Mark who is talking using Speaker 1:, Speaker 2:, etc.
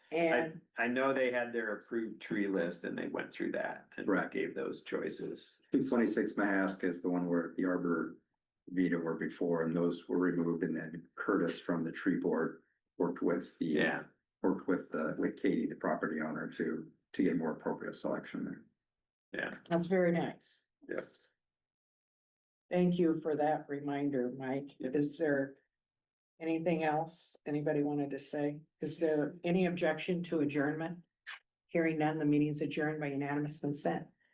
Speaker 1: And
Speaker 2: I know they had their approved tree list and they went through that and
Speaker 3: Right.
Speaker 2: gave those choices.
Speaker 3: Two twenty-six Mahaska is the one where the arbor vita were before, and those were removed, and then Curtis from the tree board worked with the.
Speaker 2: Yeah,
Speaker 3: Worked with the, with Katie, the property owner, to, to get more appropriate selection there.
Speaker 1: that's very nice.
Speaker 2: Yep.
Speaker 1: Thank you for that reminder, Mike.
Speaker 2: Yep.
Speaker 1: Is there anything else anybody wanted to say? Is there any objection to adjournment? Hearing none, the meeting's adjourned by unanimous consent.